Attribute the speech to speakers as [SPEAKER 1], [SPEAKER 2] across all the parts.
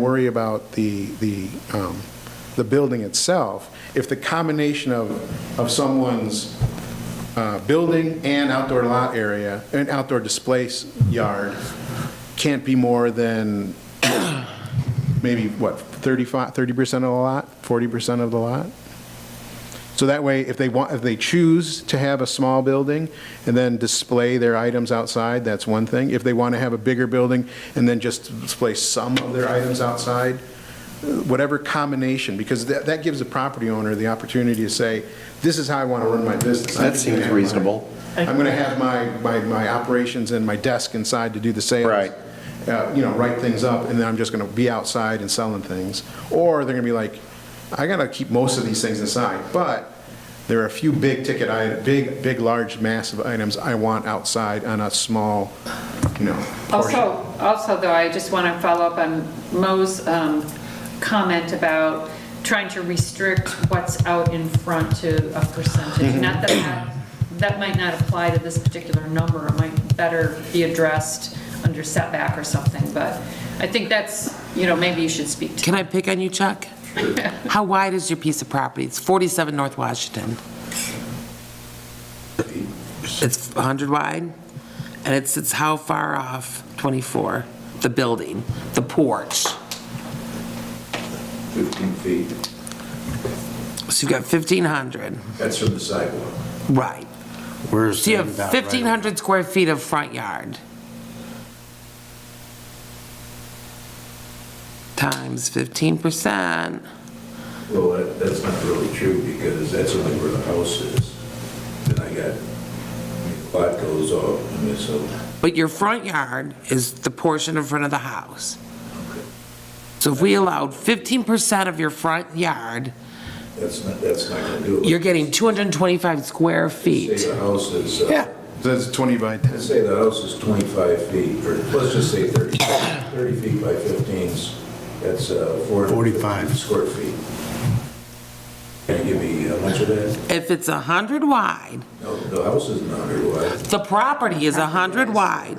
[SPEAKER 1] worry about the, the, um, the building itself, if the combination of, of someone's uh, building and outdoor lot area, and outdoor display s- yard can't be more than maybe, what, 35, 30% of the lot, 40% of the lot? So that way, if they want, if they choose to have a small building and then display their items outside, that's one thing. If they want to have a bigger building and then just display some of their items outside, whatever combination, because that, that gives the property owner the opportunity to say, this is how I want to run my business.
[SPEAKER 2] That seems
[SPEAKER 1] I'm gonna have my-
[SPEAKER 2] reasonable.
[SPEAKER 1] I'm going to have my, my, my operations and my desk inside to do the sales.
[SPEAKER 2] Right.
[SPEAKER 1] Uh, You know, write things up, and then I'm just going to be outside and selling things. Or they're going to be like, I got to keep most of these things inside, but there are a few big ticket, i- big, big, large, massive items I want outside on a small, you know, portion.
[SPEAKER 3] Also, also though, I just want to follow up on Mo's um, comment about trying to restrict what's out in front to a percentage.
[SPEAKER 4] Mm-hmm.
[SPEAKER 3] Not that that, that might not apply to this particular number, it might better be addressed under setback or something, but I think that's, you know, maybe you should speak to.
[SPEAKER 5] Can I pick on you, Chuck? How wide is your piece of property? It's 47 North Washington. It's 100 wide, and it sits how far off 24? The building, the porch.
[SPEAKER 4] 15 feet.
[SPEAKER 5] So you've got 1,500,
[SPEAKER 4] That's from the sidewalk.
[SPEAKER 5] right.
[SPEAKER 2] Where's
[SPEAKER 5] So you have 1,500 square feet of front yard. Times 15%.
[SPEAKER 4] Well, that- that's not really true because that's only where the house is. And I got, the lot goes off, I mean, so,
[SPEAKER 5] But your front yard is the portion in front of the house. So if we allowed 15% of your front yard,
[SPEAKER 4] that's not, that's not going to do it.
[SPEAKER 5] you're getting 225 square
[SPEAKER 4] Say
[SPEAKER 5] feet.
[SPEAKER 4] the house is, uh,
[SPEAKER 1] So that's 20 by 10.
[SPEAKER 4] let's say the house is 25 feet, or let's just say 30, 30 feet by 15s, that's uh, 445
[SPEAKER 2] 45.
[SPEAKER 4] square feet. Can you give me how much of that?
[SPEAKER 5] If it's 100 wide,
[SPEAKER 4] No, the house isn't 100 wide.
[SPEAKER 5] the property is 100 wide,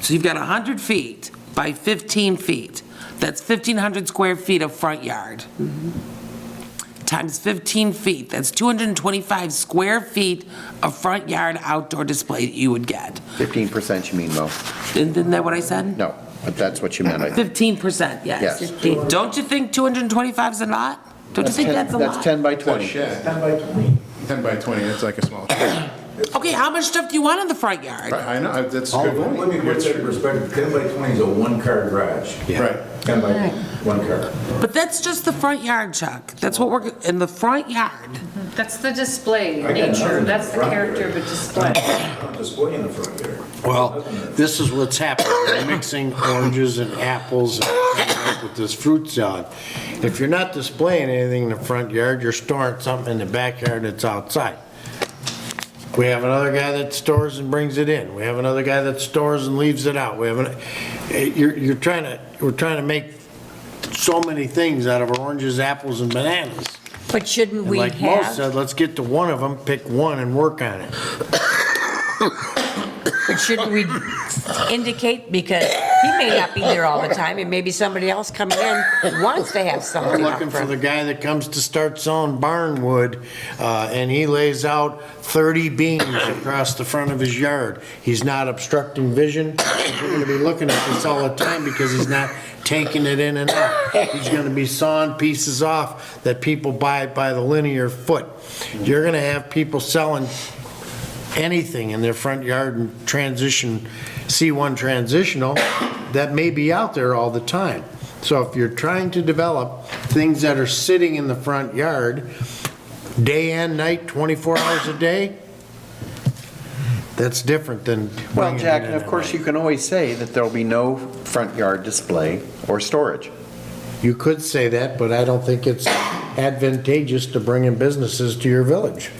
[SPEAKER 5] so you've got 100 feet by 15 feet. That's 1,500 square feet of front yard.
[SPEAKER 4] Mm-hmm.
[SPEAKER 5] Times 15 feet, that's 225 square feet of front yard outdoor display that you would get.
[SPEAKER 2] Fifteen percent you mean, Mo?
[SPEAKER 5] Isn't that what I said?
[SPEAKER 2] No, but that's what you meant, I think.
[SPEAKER 5] Fifteen percent, yes.
[SPEAKER 2] Yes.
[SPEAKER 5] Don't you think two hundred and twenty-five is a lot? Don't you think that's a
[SPEAKER 2] That's
[SPEAKER 5] lot?
[SPEAKER 2] ten by
[SPEAKER 1] That's
[SPEAKER 2] twenty.
[SPEAKER 1] shed,
[SPEAKER 4] 10 by 20.
[SPEAKER 1] 10 by 20, that's like a small,
[SPEAKER 5] Okay, how much stuff do you want in the front yard?
[SPEAKER 1] I know, that's a good
[SPEAKER 4] Let me
[SPEAKER 1] point.
[SPEAKER 4] put that in perspective, 10 by 20 is a one-car garage.
[SPEAKER 1] Right.
[SPEAKER 4] 10 by, one car.
[SPEAKER 5] But that's just the front yard, Chuck. That's what we're, in the front yard.
[SPEAKER 3] That's the display
[SPEAKER 4] I got nothing
[SPEAKER 3] nature,
[SPEAKER 4] in
[SPEAKER 3] that's the
[SPEAKER 4] front
[SPEAKER 3] character
[SPEAKER 4] yard.
[SPEAKER 3] of a display.
[SPEAKER 4] I'm displaying the front yard.
[SPEAKER 6] Well, this is what's happening, they're mixing oranges and apples and coming up with this fruit salad. If you're not displaying anything in the front yard, you're storing something in the backyard that's outside. We have another guy that stores and brings it in, we have another guy that stores and leaves it out, we have, an- eh, you're, you're trying to, we're trying to make so many things out of oranges, apples, and bananas.
[SPEAKER 7] But shouldn't
[SPEAKER 6] And
[SPEAKER 7] we
[SPEAKER 6] like Mo said,
[SPEAKER 7] have,
[SPEAKER 6] let's get to one of them, pick one and work on it.
[SPEAKER 7] but shouldn't we indicate, because he may not be there all the time, and maybe somebody else coming in wants to have
[SPEAKER 6] We're
[SPEAKER 7] something up
[SPEAKER 6] looking for the
[SPEAKER 7] front.
[SPEAKER 6] guy that comes to start selling barn wood, uh, and he lays out 30 beams across the front of his yard. He's not obstructing vision. We're gonna be looking at this all the time because he's not taking it in and out. He's gonna be sawing pieces off that people buy by the linear foot. You're gonna have people selling anything in their front yard and transition, C1 transitional, that may be out there all the time. So if you're trying to develop things that are sitting in the front yard, day and night, 24 hours a day, that's different than
[SPEAKER 2] Well,
[SPEAKER 6] bringing it
[SPEAKER 2] Jack,
[SPEAKER 6] in
[SPEAKER 2] and of
[SPEAKER 6] at
[SPEAKER 2] course,
[SPEAKER 6] night.
[SPEAKER 2] you can always say that there'll be no front yard display or storage.
[SPEAKER 6] You could say that, but I don't think it's advantageous to bring in businesses to your village.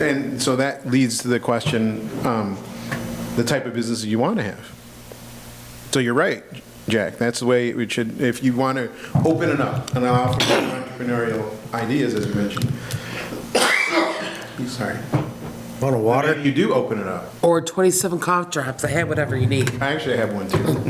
[SPEAKER 1] And so that leads to the question, um, the type of business you want to have. So you're right, Jack, that's the way it should, if you want to open it up and allow for more entrepreneurial ideas, as you mentioned. Sorry.
[SPEAKER 6] Want a water?
[SPEAKER 1] You do open it up.
[SPEAKER 5] Or 27 cough drops, I had whatever you need.
[SPEAKER 1] I actually have one too.